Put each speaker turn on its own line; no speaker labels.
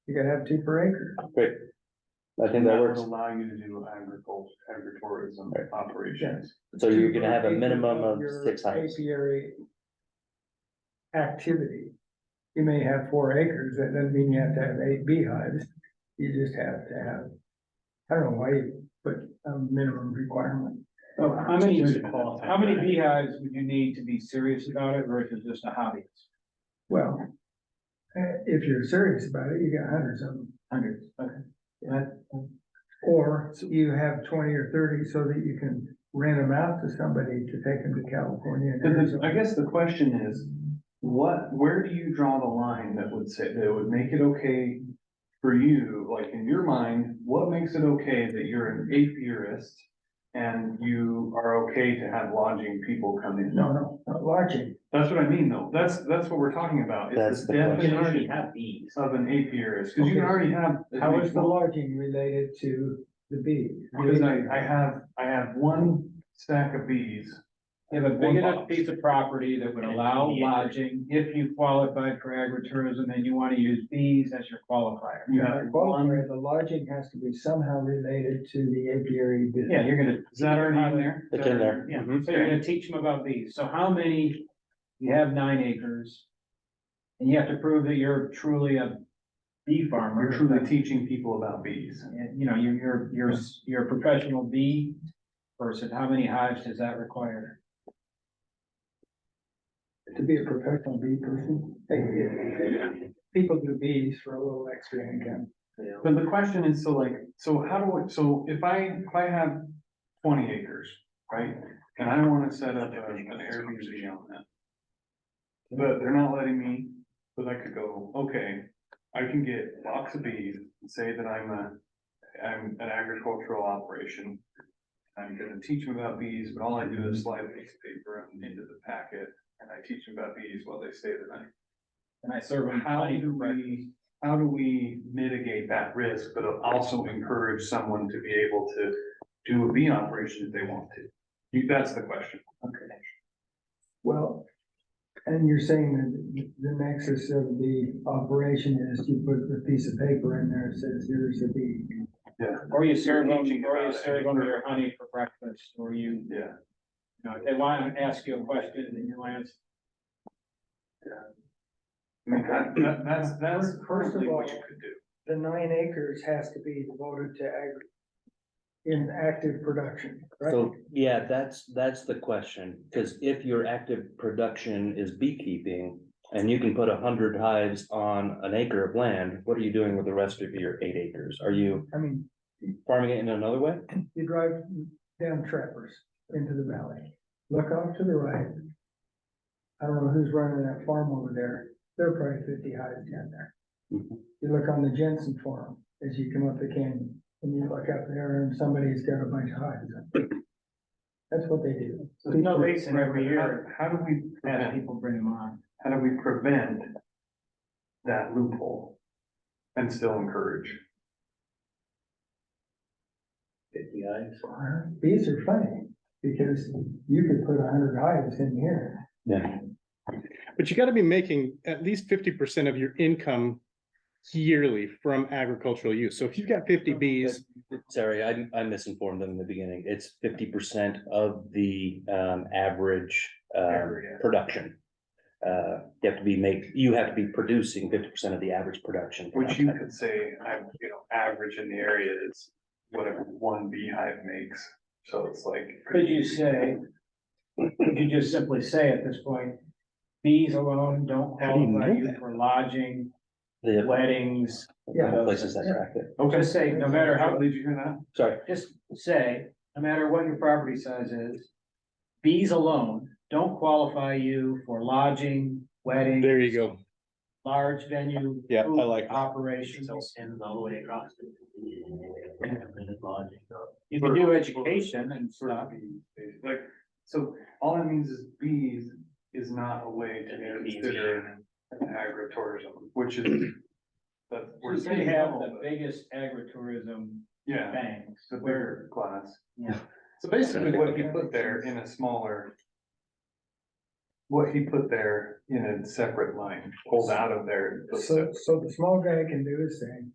You gotta have two per acre.
Great. I think that
would
works.
Allow you to do agriculture, agritourism
Right.
operations.
So you're gonna have a
Two per
minimum
acre
of
your
six houses.
Apiary. Activity. You may have four acres, that doesn't mean you have to have eight beehives, you just have to have. I don't know why you put a minimum requirement.
Oh, how many,
Just qualify.
how many beehives would you need to be serious about it versus just a hobbyist?
Well, eh, if you're serious about it, you got hundreds of them.
Hundreds, okay.
Or you have twenty or thirty so that you can rent them out to somebody to take them to California and
Because I
Arizona.
guess the question is, what, where do you draw the line that would say, that would make it okay for you, like in your mind, what makes it okay that you're an apiarist and you are okay to have lodging people come in?
No, no, not lodging.
That's what I mean, though. That's, that's what we're talking about.
That's
It's the
the question.
You already
definition
have bees.
of an apiarist, because you can
Okay.
already have.
How is the lodging related to the bees?
Because I, I have, I have one stack of bees.
You have a big enough piece of property that would allow lodging if you qualified for agritourism and you want to use bees as your qualifier.
You
Yeah,
have one,
qualifier, uh, the lodging has to be somehow related to the apiary
Yeah,
business.
you're gonna.
Is that already in there?
It's in there.
Yeah,
Mhm.
so you're gonna teach them about bees. So how many, you have nine acres. And you have to prove that you're truly a bee farmer.
you're truly teaching people about bees.
And, you know, you're, you're, you're, s- you're a professional bee person, how many hives does that require?
To be a professional bee person, they- people do bees for a little extra income.
But the question is, so like, so how do I, so if I, if I have twenty acres, right? And I wanna set up a- an Airbnb on that. But they're not letting me, but I could go, okay, I can get box of bees, and say that I'm a, I'm an agricultural operation. I'm gonna teach them about bees, but all I do is slide a piece of paper into the packet, and I teach them about bees while they stay the night.
And I serve them
How
honey
do
for breakfast.
we, how do we mitigate that risk, but also encourage someone to be able to do a bee operation if they want to? You, that's the question.
Okay. Well, and you're saying that the nexus of the operation is you put the piece of paper in there, that says here's a bee.
Or you serve
You're
them,
teaching
or you
about it.
serve them your honey for breakfast, or you,
Yeah.
you know, if they wanna ask you a question and you answer.
I mean, that, that- that's, that's
First- first of
currently what you
all-
could do.
The nine acres has to be devoted to agri, in active production, right?
So, yeah, that's, that's the question, because if your active production is beekeeping. And you can put a hundred hives on an acre of land, what are you doing with the rest of your eight acres? Are you
I mean,
farming it in another way?
you drive down Trappers into the valley, look off to the right. I don't know who's running that farm over there, there are probably fifty hives down there.
Mhm.
You look on the Jensen farm as you come up the canyon, and you look up there and somebody's got a bunch of hives. up there. That's what they do.
So
There's no reason every year
How how do we,
that
prevent-
people bring them on.
how do we prevent that loophole and still encourage?
Fifty eyes.
Bees are funny, because you could put a hundred hives in here.
Yeah.
But you gotta be making at least fifty percent of your income yearly from agricultural use. So if you've got fifty bees,
Sorry, I, I misinformed them in the beginning. It's fifty percent of the, um, average, uh,
Area.
production. Uh, you have to be make, you have to be producing fifty percent of the average production.
Which you could say, I, you know, average in the area is whatever one beehive makes, so it's like.
Could you say, could you just simply say at this point, bees alone don't
How do you
qualify
know
you
that?
for lodging,
The
weddings,
Yeah.
places that are active,
Okay,
just say, no matter how,
did you hear that?
sorry.
just say, no matter what your property size is, bees alone don't qualify you for lodging, wedding.
there you go.
Large venue.
Yeah, I
food
like that.
Operations.
Extends all the way across. to the- and it's lodging.
You can do education and stuff.
Like, so all that means is bees is not a way to
It could be
consider an agritourism, which is. But we're
We
saying,
have
no,
the
but-
biggest agritourism
yeah,
banks.
the bigger class.
Yeah.
So basically what you put there in a smaller. what he put there in a separate line, pulled out of there.
So, so the small guy can do his thing,